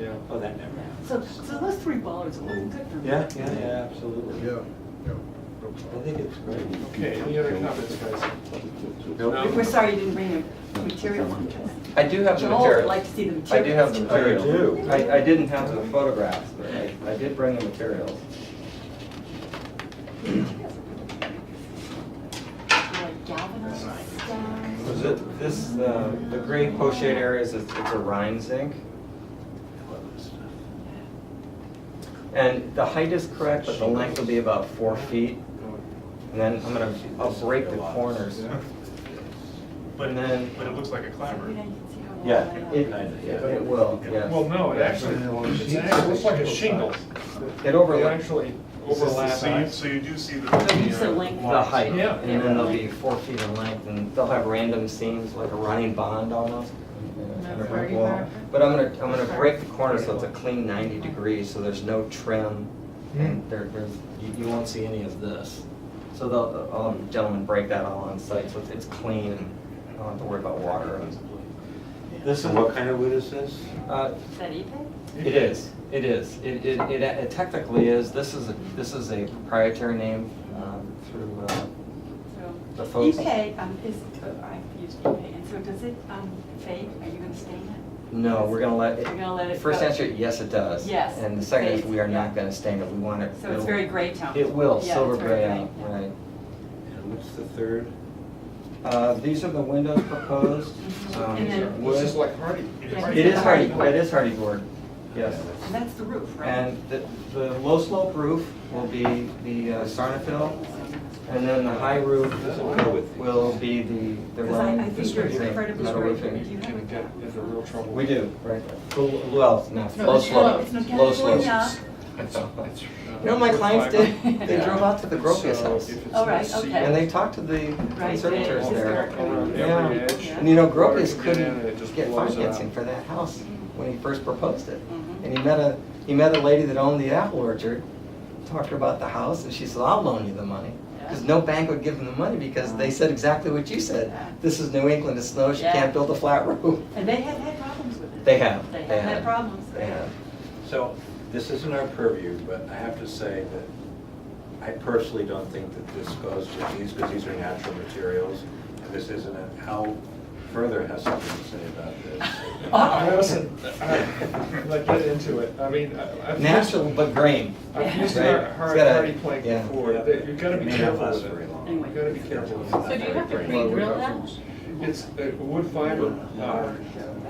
Yeah. Oh, that never happened. So, so those three bollards are looking good for me. Yeah, yeah, yeah, absolutely. Yeah, yeah. I think it's great. Okay, any other comments, guys? Nope. We're sorry you didn't bring your material on. I do have the Joel would material. like to see the I do have materials. the I materials. do. I, I didn't have the photographs, but I, I did bring the materials. Like galvanized stone. So the- This, uh, the gray pochette area is, it's a Rhine zinc. And the height is correct, but the length will be about four feet. And then I'm gonna, I'll break the corners. But, And then- but it looks like a You know, clapper. you can see how well Yeah, that- It, yeah. it will, Well, yes. no, it actually, it's actually- it looks like a shingle. It It overlaps actually So you- overlaps. So you, so you do see the. So you said length. the height. Yeah. And then there'll be four feet in length and they'll have random seams, like a running bond almost. and a brick wall. But I'm gonna, I'm gonna break the corner so it's a clean ninety degrees, so there's no trim. And there, there's, you, you won't see any of this. So they'll, I'll have the gentleman break that all on site, so it's, it's clean and I don't have to worry about water. This is, what kind of wood is this? Uh, Is that E even? It is, it is. It, it, it- it technically is. This is, a this is a proprietary name, um, through, uh, The So folks- Epay, um, is, uh, I've used Epay, and so does it um, fade? Are you gonna stain it? no, we're gonna let. We're gonna let it First go. answer, yes, it does. Yes, And the second is, it we are not fades, gonna stain it. We want it. So it's it'll- very gray tone. It will, Yeah, silver it's very gray out, yeah. right. And what's the third? Uh, these are the windows proposed. Mhm. um, And then- wood. This is like hardy. Yeah. It is hardy, it is hardy board, yes. And that's the roof, right? And the, the low slope roof will be the uh, sarnafil, and then the high roof will be the, the Because I, I run. think you're incredibly metal right. roofing. You You're have gonna a- get into real trouble. We do, right. Well, no, No, low it's slope, It's not low slope. California. You know, my clients did, they drove out to the Gropius So house, if it's Oh, right, not seen- okay. and they talked to the Right, conservators yeah, it's there. historical. Around Yeah. every edge. Yeah. And you Or know, you Gropius get in and it couldn't just get blows it financing out. for that house when he first proposed it. Mhm. And he met a, he met a lady that owned the apple orchard, talked to her about the house, and she said, I'll loan you the money. Because Yeah. no bank would give him the money because they said exactly what you said. Yeah. This is New England, it's snows, you Yeah. can't build a flat roof. And they have had problems with it. They have, They they have had have. problems. They have. So, this isn't our purview, but I have to say that I personally don't think that this goes with these, because these are natural materials, and this isn't it. Hal further has something to say about this. I wasn't, I, like, get into it. I mean, I- I've. Natural but grain. I've used Right. a It's hard got a- hardy plank yeah. before. That- You've got to It be may not careful last with very it. long. Anyway. You've got to be careful with So it. So do you have to Well, pre-drill that? It's uh, wood fiber. uh,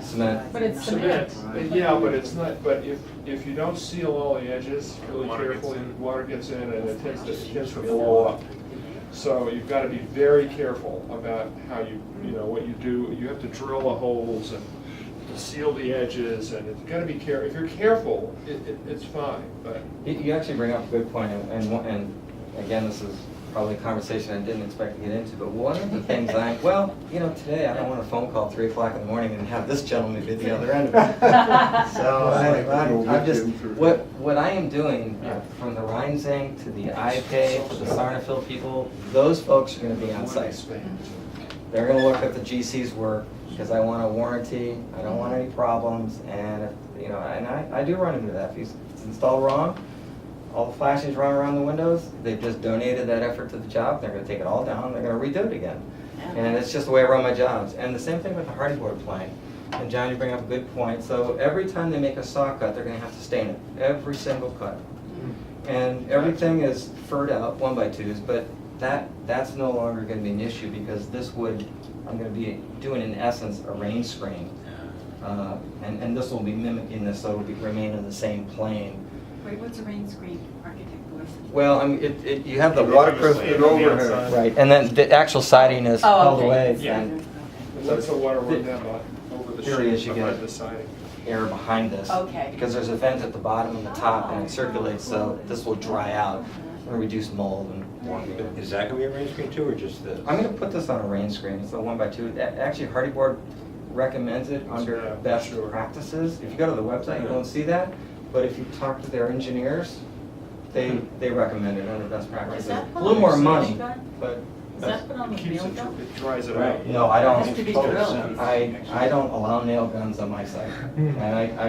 Cement. But it's Cement, cement. Uh, yeah, but it's not, but if, if you don't seal all the edges really Water gets carefully, in. water gets in and it tends to, it tends to blow up. So you've got to be very careful about how you, you know, what you do. You have to drill the holes and seal the edges and it's got to be care, if you're careful, it, it, it's fine, but. You- You actually bring up a good point, and- and, one- and again, this is probably a conversation I didn't expect to get into, but one of the things I, well, you know, today I don't want a phone call three o'clock in the morning and have this gentleman be the other end of it. So I, I'm- I'm just, what, what I am doing, uh, from the Rhine Zink to the IPay to the Sarnafil people, those folks are gonna be on site. They're gonna look at the GC's work, because I want a warranty, I don't want any problems, and, if- you know, and I, I do run into that. If it's installed wrong, all the flashings run around the windows, they've just donated that effort to the job, they're gonna take it all down, they're gonna redo it again. And it's just the way I run my jobs, and the same thing with the hardy board plank. And John, you bring up a good point, so every time they make a saw cut, they're gonna have to stain it, every single cut. And everything is furred out, one by twos, but that, that's no longer gonna be an issue because this would, I'm gonna be doing in essence a rain screen. Uh, And, and this will be mimicking this, so it'll be remain in the same plane. Wait, what's a rain screen architect voice? Well, I mean, it, it, you have the It waterproof. overlays it on the outside. Right, and then the actual siding is Oh, held okay. away Yeah. and And let the water run down on- over the Here it is, sheet you behind get it. the siding. air behind this. Okay. Because there's a vent at the bottom and the top and it circulates, so this will dry out and reduce mold and warming. Is that gonna be a rain screen too, or just this? I'm gonna put this on a rain screen, it's a one by two, A- actually Hardy Board recommends it Yeah, under best sure. practices. If you go to the website, you won't see that, but if you talk to their engineers, they, they recommend it under best practices. that A little more put on the money, stage guy? but, Is that put on It the keeps mail it, dump? it dries it out. Right. no, I don't. Has to be drilled. I, I don't allow nail guns on my site, and I, I